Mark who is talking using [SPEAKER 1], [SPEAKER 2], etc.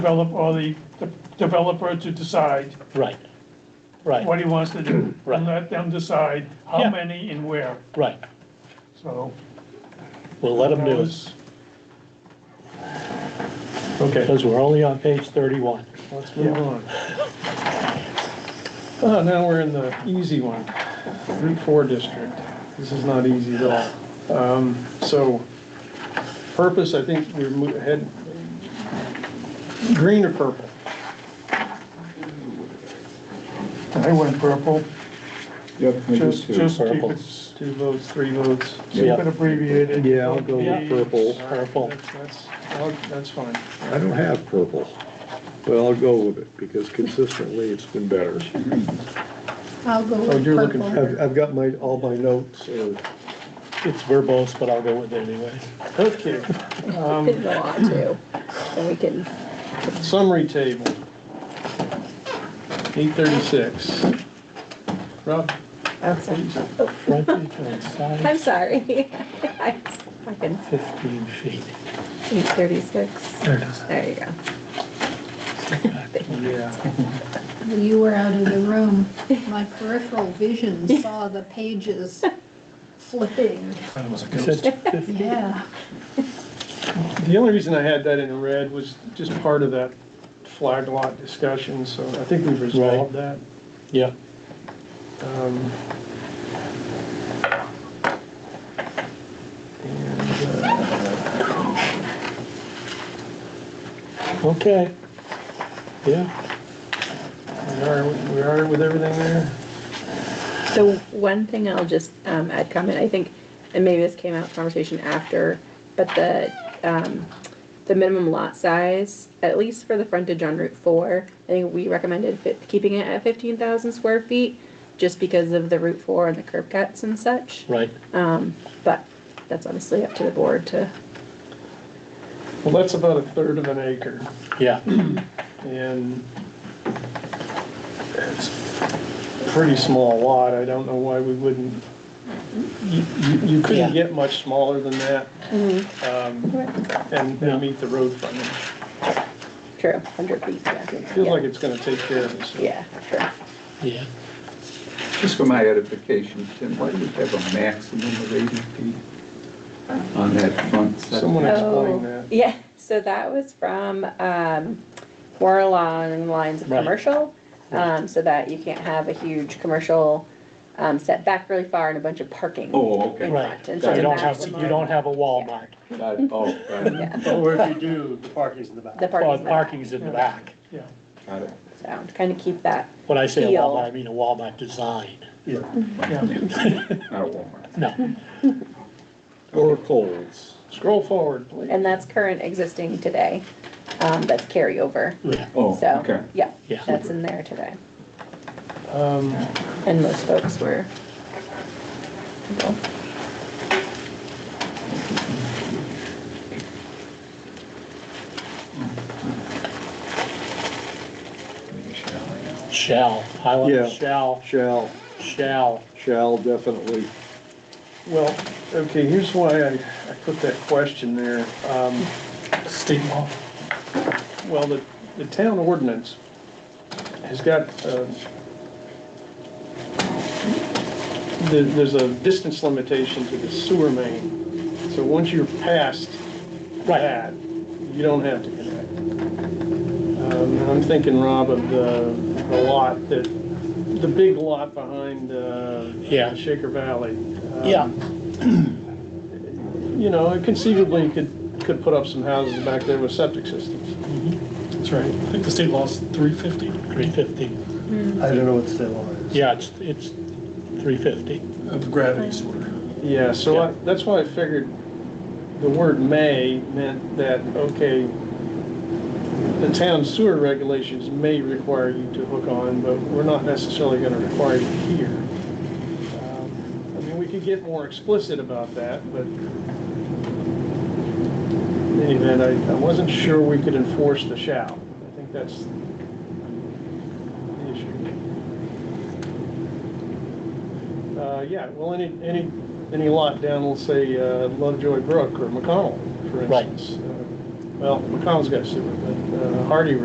[SPEAKER 1] develop, or the the developer to decide
[SPEAKER 2] Right, right,
[SPEAKER 1] what he wants to do.
[SPEAKER 2] Right.
[SPEAKER 1] And let them decide how
[SPEAKER 2] Yeah.
[SPEAKER 1] many and where,
[SPEAKER 2] right.
[SPEAKER 1] so.
[SPEAKER 2] We'll let them
[SPEAKER 1] that
[SPEAKER 2] do it,
[SPEAKER 1] was- Okay,
[SPEAKER 2] because we're only on page thirty-one.
[SPEAKER 3] Let's move on. Uh, now we're in the easy one, Route Four District. This is not easy at all. Um, so, purpose, I think we're mo- head, green or purple?
[SPEAKER 1] I went purple,
[SPEAKER 4] Yep, we
[SPEAKER 1] just,
[SPEAKER 4] just do.
[SPEAKER 1] just keep
[SPEAKER 2] Purple.
[SPEAKER 1] it,
[SPEAKER 3] Two votes, three votes.
[SPEAKER 1] keep
[SPEAKER 2] Yeah.
[SPEAKER 1] it abbreviated.
[SPEAKER 4] Yeah, I'll go
[SPEAKER 1] Yeah.
[SPEAKER 4] with purple.
[SPEAKER 2] Purple,
[SPEAKER 3] That's, that's, I'll- that's fine.
[SPEAKER 4] I don't have purple, but I'll go with it because consistently it's been better.
[SPEAKER 5] I'll go
[SPEAKER 3] Oh,
[SPEAKER 5] with
[SPEAKER 3] you're looking
[SPEAKER 5] purple.
[SPEAKER 4] I've, I've got my, all my notes are,
[SPEAKER 2] it's verbose, but I'll go with it anyway.
[SPEAKER 3] Okay,
[SPEAKER 5] You can go on to, and we can,
[SPEAKER 3] summary table. Eight thirty-six. Rob?
[SPEAKER 2] Frontage on side
[SPEAKER 5] I'm sorry. I I can,
[SPEAKER 2] fifteen feet.
[SPEAKER 5] eight thirty-six,
[SPEAKER 2] There it is.
[SPEAKER 5] there you go.
[SPEAKER 3] Yeah.
[SPEAKER 6] You were out of the room. My peripheral vision saw the pages flipping.
[SPEAKER 2] It says 15.
[SPEAKER 6] Yeah.
[SPEAKER 3] The only reason I had that in red was just part of that flag lot discussion, so I think we've resolved that.
[SPEAKER 2] Yeah,
[SPEAKER 3] Um, And, uh,
[SPEAKER 2] uh, okay. Yeah,
[SPEAKER 3] we are, we are with everything there?
[SPEAKER 5] So one thing I'll just um, add comment, I think, and maybe this came out in conversation after, but the, um, the minimum lot size, at least for the frontage on Route Four, I think we recommended fi- keeping it at fifteen thousand square feet, just because of the Route Four and the curb cuts and such.
[SPEAKER 2] right.
[SPEAKER 5] But that's honestly up to the board to,
[SPEAKER 3] Well, that's about a third of an acre,
[SPEAKER 2] Yeah,
[SPEAKER 3] and it's a pretty small lot, I don't know why we wouldn't, you, you- you couldn't
[SPEAKER 2] Yeah.
[SPEAKER 3] get much smaller than that.
[SPEAKER 5] Mm-hmm.
[SPEAKER 3] um, And, and meet the road frontage.
[SPEAKER 5] true, hundred feet, yeah.
[SPEAKER 3] Feels like it's gonna take care of us.
[SPEAKER 5] Yeah, true.
[SPEAKER 2] yeah.
[SPEAKER 7] Just for my edification, Tim, why do we have a maximum of 80 feet on that front
[SPEAKER 3] Someone
[SPEAKER 7] setback?
[SPEAKER 3] explain
[SPEAKER 5] Oh,
[SPEAKER 3] that.
[SPEAKER 5] yeah, so that was from, um, more along the lines of
[SPEAKER 2] Right.
[SPEAKER 5] commercial. Um, so that you can't have a huge commercial, um, set back really far and a bunch of parking.
[SPEAKER 7] Oh, okay.
[SPEAKER 2] Right.
[SPEAKER 5] And
[SPEAKER 7] so
[SPEAKER 2] You don't have,
[SPEAKER 5] maximum-
[SPEAKER 2] you don't have a Walmart.
[SPEAKER 7] Got it. Oh, got it.
[SPEAKER 5] Yeah,
[SPEAKER 8] Or if you do, the parking's in the back.
[SPEAKER 5] the
[SPEAKER 2] Well,
[SPEAKER 5] parking,
[SPEAKER 2] parking's in the back.
[SPEAKER 1] Yeah,
[SPEAKER 7] Got it.
[SPEAKER 5] so to kind of keep that,
[SPEAKER 2] When I say a
[SPEAKER 5] Heel.
[SPEAKER 2] Walmart, I mean a Walmart design.
[SPEAKER 1] yeah,
[SPEAKER 7] Not a Walmart.
[SPEAKER 2] No,
[SPEAKER 4] or Coles.
[SPEAKER 3] Scroll forward, please.
[SPEAKER 5] and that's current existing today, um, that's carryover.
[SPEAKER 2] yeah,
[SPEAKER 7] Oh, okay.
[SPEAKER 5] So, yeah,
[SPEAKER 2] Yeah.
[SPEAKER 5] that's in there today.
[SPEAKER 3] Um,
[SPEAKER 5] And most folks were.
[SPEAKER 2] shall,
[SPEAKER 4] Yeah.
[SPEAKER 2] highlight shall,
[SPEAKER 4] Shall,
[SPEAKER 2] shall.
[SPEAKER 4] shall definitely.
[SPEAKER 3] well, okay, here's why I, I put that question there. Um,
[SPEAKER 1] state law.
[SPEAKER 3] well, the, the town ordinance has got, uh, there, there's a distance limitation to the sewer main. So once you're past
[SPEAKER 2] Right,
[SPEAKER 3] that, you don't have to connect. Um, and I'm thinking, Rob, of the, the lot that, the big lot behind, uh,
[SPEAKER 2] Yeah.
[SPEAKER 3] Shaker Valley. Um,
[SPEAKER 2] yeah,
[SPEAKER 3] you know, conceivably, you could, could put up some houses back there with septic systems.
[SPEAKER 8] That's right. I think the state law's three fifty.
[SPEAKER 2] three fifty.
[SPEAKER 8] I don't know what the state law is.
[SPEAKER 2] Yeah, it's, it's three fifty.
[SPEAKER 8] Of gravity sort of.
[SPEAKER 3] Yeah, so I,
[SPEAKER 2] Yeah.
[SPEAKER 3] that's why I figured the word may meant that, okay, the town sewer regulations may require you to hook on, but we're not necessarily gonna require you here. Um, I mean, we could get more explicit about that, but in any event, I, I wasn't sure we could enforce the shall. I think that's the issue. Uh, yeah, well, any, any, any lot down, let's say, uh, Lovejoy Brook or McConnell, for
[SPEAKER 2] Right.
[SPEAKER 3] instance. uh, well, McConnell's got sewer, but uh, Hardy